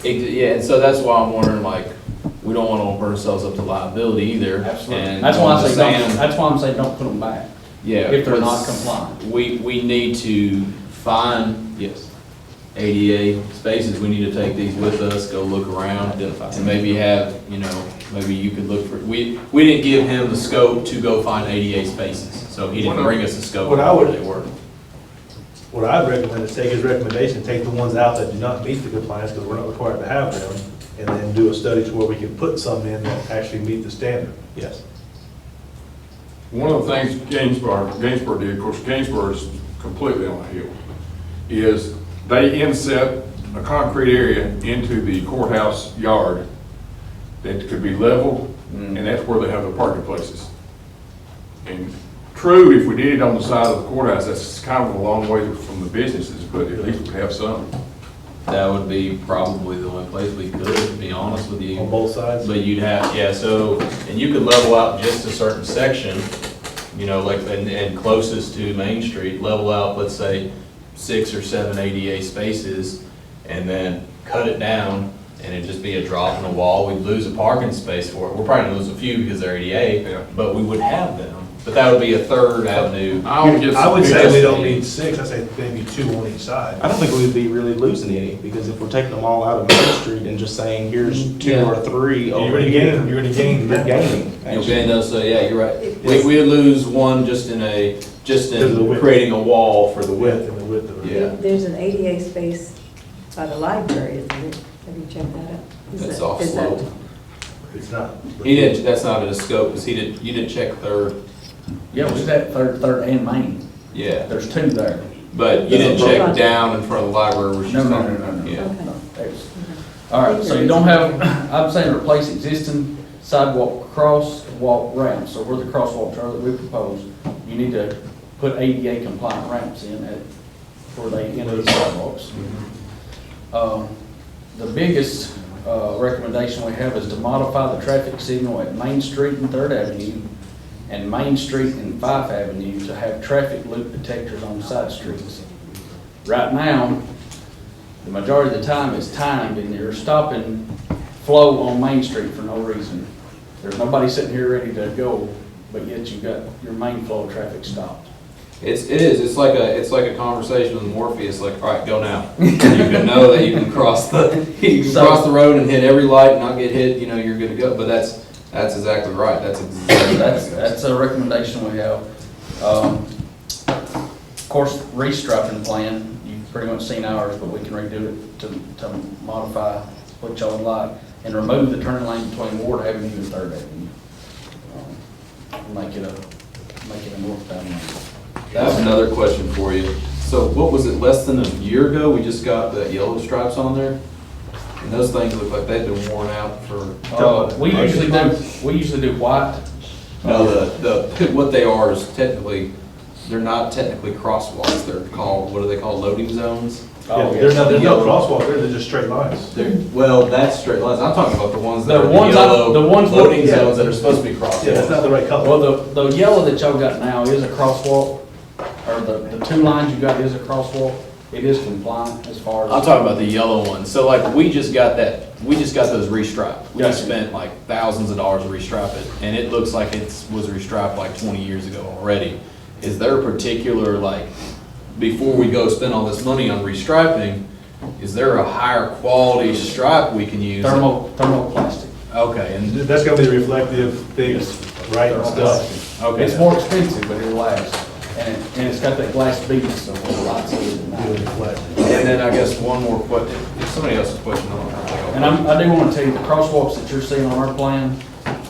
Ex- Yeah, and so that's why I'm wondering, like, we don't wanna open ourselves up to liability either. Absolutely. And That's why I'm I just say, don't- saying, that's why I'm saying, don't put them back. Yeah. if they're not let's- compliant. We, we need to find, yes, ADA spaces, we need to take these with us, go look around, Identify. and maybe have, you know, maybe you could look for, we, we didn't give him the scope to go find ADA spaces, so he didn't What I- bring us a scope what I of where would- they were. What I'd recommend is take his recommendation, take the ones out that do not meet the compliance, because we're not required to have them, and then do a study to where we can put some in that actually meet the standard, yes. One of the things Gainsborough, Gainsborough did, of course, Gainsborough is completely on a hill, is they inset a concrete area into the courthouse yard that could be leveled, Mm. and that's where they have the parking places. And true, if we did it on the side of the courthouse, that's kind of a long way from the businesses, but at least we have some. That would be probably the only place we could, to be honest with you. On both sides? But you'd have, yeah, so, and you could level out just a certain section, you know, like, and, and closest to Main Street, level out, let's say, six or seven ADA spaces, and then cut it down, and it'd just be a drop in the wall, we'd lose a parking space for it, we're probably gonna lose a few because they're Yeah. ADA, but we would have them, but that would be a third avenue. I would just- I would say we don't need six, I say maybe two on each I side. don't think we'd be really losing any, because if we're taking them all out of Main Street and just saying, here's two or three You're over gonna here. gain, you're gonna gain. You're gaining, You'll actually. gain those, so, yeah, you're right, we, we lose one just in a, just Because of the in width. creating a wall for the The width. width and the width of it. Yeah. There's an ADA space by the library, isn't it? Have you checked that out? Is That's that- off is that- slope. It's not. He didn't, that's not in his scope, because he didn't, you didn't check third, Yeah, we said third, third and main. yeah, There's two there. but you didn't Doesn't check look- down in front of the library, which No, is no, not, no, no, no. yeah. Okay. No, there's- All right, so you don't have, I'm saying replace existing sidewalk crosswalk ramps, so where the crosswalks are that we propose, you need to put ADA compliant ramps in at, where they enter the sidewalks. Um, The biggest uh, recommendation we have is to modify the traffic signal at Main Street and Third Avenue and Main Street and Fife Avenue to have traffic loop detectors on side streets. Right now, the majority of the time it's timed and they're stopping flow on Main Street for no reason. There's nobody sitting here ready to go, but yet you've got your main flow of traffic stopped. It's, it is, it's like a, it's like a conversation with Morpheus, like, all right, go now. And You can know that you can cross the, you can So- cross the road and hit every light and not get hit, you know, you're good to go, but that's, that's exactly right, that's exactly. That's, that's a recommendation we have. Um, Of course, restriping plan, you've pretty much seen ours, but we can redo it to, to modify what y'all would like and remove the turn lane between Ward Avenue and Third Avenue. Um, Make it a, make it a north bound lane. I have another question for you. So what was it, less than a year ago, we just got the yellow stripes on there? And those things look like they've been worn out for Uh, we usually do, we usually do white. No, Oh, the, the, what they are is technically, they're not technically crosswalks, they're called, what are they called, loading zones? Oh, Yeah, There's no, there's no Yellow. crosswalk there, they're just straight lines. They're, well, that's straight lines, I'm talking about the ones that The are the ones I- yellow, the ones that- loading yeah. zones that are supposed to be Yeah, that's not crosswalks. the right color. Well, the, the yellow that y'all got now is a crosswalk, or the, the two lines you got is a crosswalk. It is compliant as far as. I'm talking about the yellow ones, so like, we just got that, we just got those restriped. We just Gotcha. spent like thousands of dollars to restripe it, and it looks like it's, was restriped like twenty years ago already. Is there a particular, like, before we go spend all this money on restriping, is there a higher quality stripe we can use? Thermo, thermoplastic. Okay, and, That's gonna be the reflective things, right, and stuff. It's okay, more expensive, but it lasts. And, it- and it's got that glass bead, so it lights it at It'll night. reflect. and then I guess one more question, if somebody else's question, I'll- I'll. And I'm, I do wanna tell you, the crosswalks that you're seeing on our plan,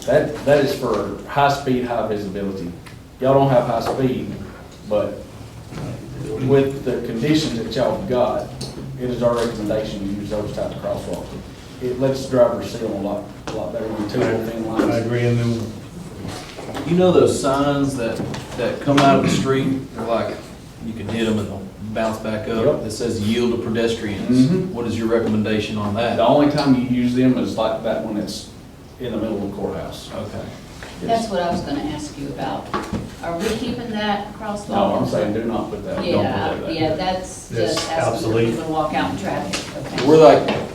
that, that is for high speed, high visibility. Y'all don't have high speed, but with the conditions that y'all have got, it is our recommendation to use those type of crosswalks. It lets drivers see them a lot, a lot better than two little thin I lines. agree, and then You know those signs that, that come out of the street, they're like, you can hit them and they'll bounce back up, Yep. that says yield to pedestrians? Mhm. What is your recommendation on The that? only time you use them is like that one that's in the middle of the courthouse. Okay. That's what I was gonna ask you about. Are we keeping that crosswalk? No, I'm saying do not put that, don't put that Yeah, there. yeah, that's It's just asking obsolete. people to walk out in traffic, okay? We're like,